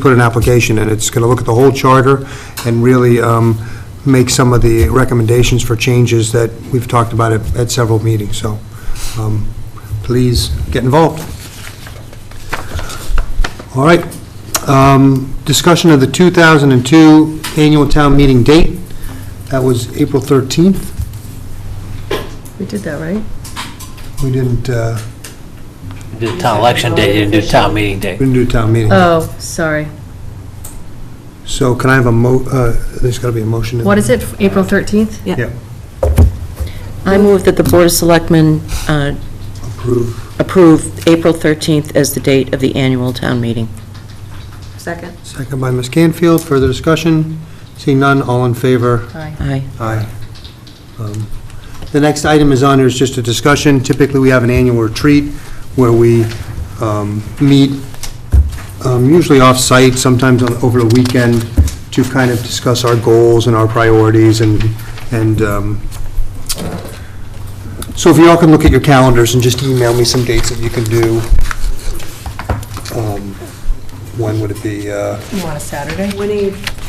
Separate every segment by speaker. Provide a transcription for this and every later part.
Speaker 1: put an application in. It's going to look at the whole charter and really um, make some of the recommendations for changes that we've talked about at at several meetings, so um, please get involved. All right. Um, Discussion of the 2002 annual town meeting date. That was April 13th.
Speaker 2: We did that, right?
Speaker 1: We didn't, uh,
Speaker 3: Do town election day, you didn't do town meeting day.
Speaker 1: we didn't do town meeting.
Speaker 2: Oh, sorry.
Speaker 1: So can I have a mo, uh, there's got to be a motion. in
Speaker 2: What
Speaker 1: there.
Speaker 2: is it, April 13th?
Speaker 1: Yeah,
Speaker 4: I move that the Board of Selectmen uh,
Speaker 1: approve.
Speaker 4: approve April 13th as the date of the annual town meeting.
Speaker 2: Second.
Speaker 1: Second by Ms. Canfield. Further discussion? Seeing none, all in favor?
Speaker 2: Aye.
Speaker 4: Aye.
Speaker 1: Aye. Um, The next item is on, is just a discussion. Typically, we have an annual retreat where we um, meet, um, usually off-site, sometimes on- over the weekend, to kind of discuss our goals and our priorities and, and um, so if you all can look at your calendars and just email me some dates that you can do. Um, When would it be? uh,
Speaker 2: You want a Saturday?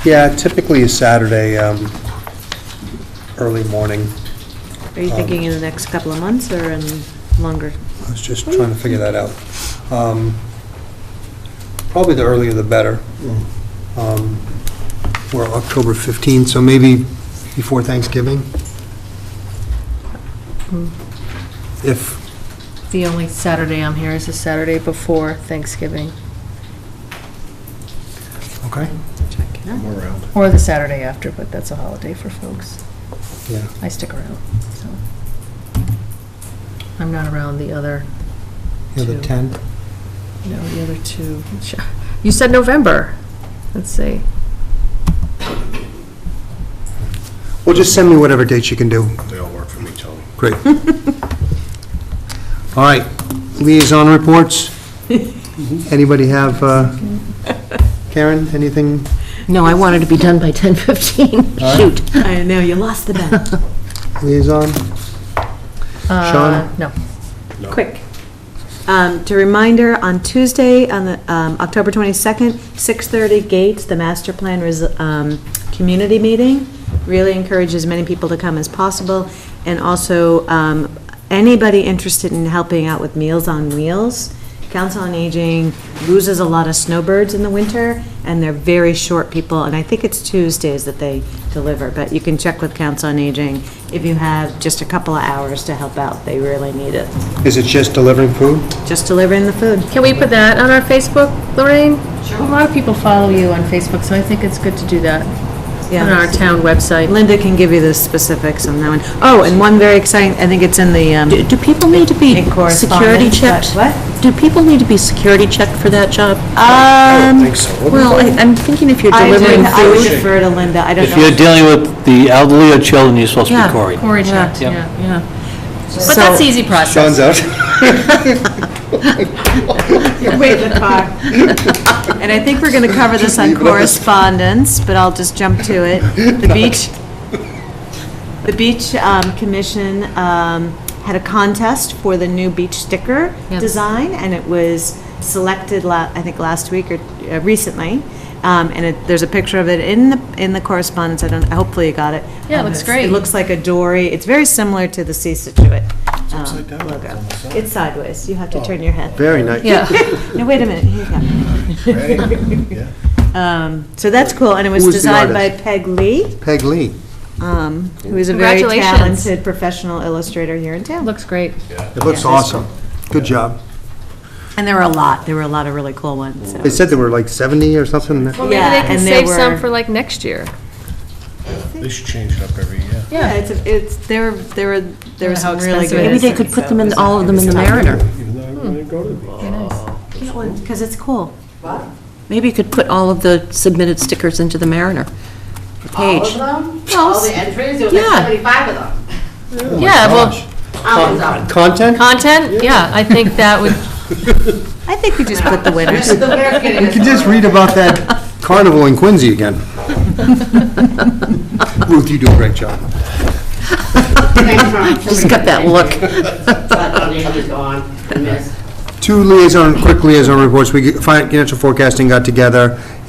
Speaker 1: Yeah, typically a Saturday, um, early morning.
Speaker 5: Are you thinking in the next couple of months or in longer?
Speaker 1: I was just trying to figure that out. Um, Probably the earlier the better. Um, We're October 15th, so maybe before Thanksgiving? If,
Speaker 2: The only Saturday I'm here is the Saturday before Thanksgiving,
Speaker 1: okay,
Speaker 2: or the Saturday after, but that's a holiday for folks.
Speaker 1: yeah.
Speaker 2: I stick around, so. I'm not around the other,
Speaker 1: Yeah, the
Speaker 2: Two.
Speaker 1: 10th,
Speaker 2: no, the other two. You said November. Let's see.
Speaker 1: well, just send me whatever dates you can do.
Speaker 6: They all work for me, Tony.
Speaker 1: Great. All right, liaison reports? Anybody have, uh, Karen, anything?
Speaker 4: No, I wanted to be done by 10:15. Shoot.
Speaker 5: I know, you lost the bet.
Speaker 1: liaison?
Speaker 2: Uh, No.
Speaker 5: Quick. Um, To reminder, on Tuesday, on the, um, October 22nd, 6:30 Gates, the master plan res- um, community meeting. Really encourage as many people to come as possible. And also, um, anybody interested in helping out with Meals on Wheels, Council on Aging loses a lot of snowbirds in the winter, and they're very short people, and I think it's Tuesdays that they deliver, but you can check with Council on Aging if you have just a couple of hours to help out. They really need it.
Speaker 1: Is it just delivering food?
Speaker 5: Just delivering the food.
Speaker 2: Can we put that on our Facebook, Lorraine? Sure. A lot of people follow you on Facebook, so I think it's good to do that on our town website.
Speaker 5: Linda can give you the specifics on that one. Oh, and one very exciting, I think it's in the, um,
Speaker 4: Do do people need to be
Speaker 5: In correspondence,
Speaker 4: security
Speaker 5: but
Speaker 4: checked?
Speaker 5: what?
Speaker 4: Do people need to be security checked for that job?
Speaker 1: I
Speaker 5: Um,
Speaker 1: don't think so.
Speaker 4: Well, I- I'm thinking if you're
Speaker 5: I would-
Speaker 4: delivering
Speaker 5: I would
Speaker 4: food.
Speaker 5: defer to Linda, I don't
Speaker 3: If you're
Speaker 5: know.
Speaker 3: dealing with the elderly or children, you're supposed to
Speaker 4: Yeah.
Speaker 3: be Cory.
Speaker 2: Cory checked,
Speaker 3: Yep.
Speaker 2: yeah, yeah. But that's easy process.
Speaker 1: out.
Speaker 5: Wait in the car. And I think we're going to cover this on correspondence, but I'll just jump to it. The beach, the beach um, commission um, had a contest for the new beach sticker
Speaker 2: Yes.
Speaker 5: design, and it was selected, la- I think, last week or uh, recently. Um, And it, there's a picture of it in the, in the correspondence, I don't, hopefully you got it.
Speaker 2: Yeah, it
Speaker 5: Um,
Speaker 2: looks
Speaker 5: it's-
Speaker 2: great.
Speaker 5: It looks like a dory, it's very similar to the Sea Situate um, logo. It's sideways, you have to turn your head.
Speaker 1: Very nice.
Speaker 2: Yeah,
Speaker 5: No, wait a minute, here you go.
Speaker 6: Yeah.
Speaker 5: Um, So that's cool, and it was
Speaker 1: Who was the
Speaker 5: designed by
Speaker 1: artist?
Speaker 5: Peg Lee,
Speaker 1: Peg Lee.
Speaker 5: um, who is a very
Speaker 2: Congratulations.
Speaker 5: talented professional illustrator here in town.
Speaker 2: looks great.
Speaker 1: It looks awesome. Good job.
Speaker 5: And there were a lot, there were a lot of really cool ones, so.
Speaker 1: They said there were like 70 or something.
Speaker 2: Well, maybe
Speaker 5: Yeah,
Speaker 2: they can
Speaker 5: and
Speaker 2: save
Speaker 5: there
Speaker 2: some
Speaker 5: were-
Speaker 2: for like next year.
Speaker 6: They should change it up every year.
Speaker 5: Yeah, it's, a- it's, there, were- there were, there were
Speaker 2: How
Speaker 5: some really
Speaker 2: expensive
Speaker 5: good.
Speaker 2: it
Speaker 4: Maybe
Speaker 2: is.
Speaker 4: they could put them in, all of them in the Mariner.
Speaker 6: Even though I wouldn't go to the beach.
Speaker 5: Because it's cool.
Speaker 4: Maybe you could put all of the submitted stickers into the Mariner page.
Speaker 7: All of them?
Speaker 4: Well,
Speaker 7: All the entries, there were like
Speaker 4: yeah.
Speaker 7: 75 of them.
Speaker 2: Yeah, well,
Speaker 7: Hours up.
Speaker 1: Content?
Speaker 2: content, yeah, I think that would,
Speaker 5: I think we just put the winners.
Speaker 7: The winner kid
Speaker 1: You
Speaker 7: is-
Speaker 1: could just read about that carnival in Quincy again. Ruth, you do a great job.
Speaker 7: Thanks, Ron.
Speaker 4: Just got that look.
Speaker 7: But the name is gone. We missed.
Speaker 1: Two liaison, quick liaison reports. We, get- financial forecasting got together,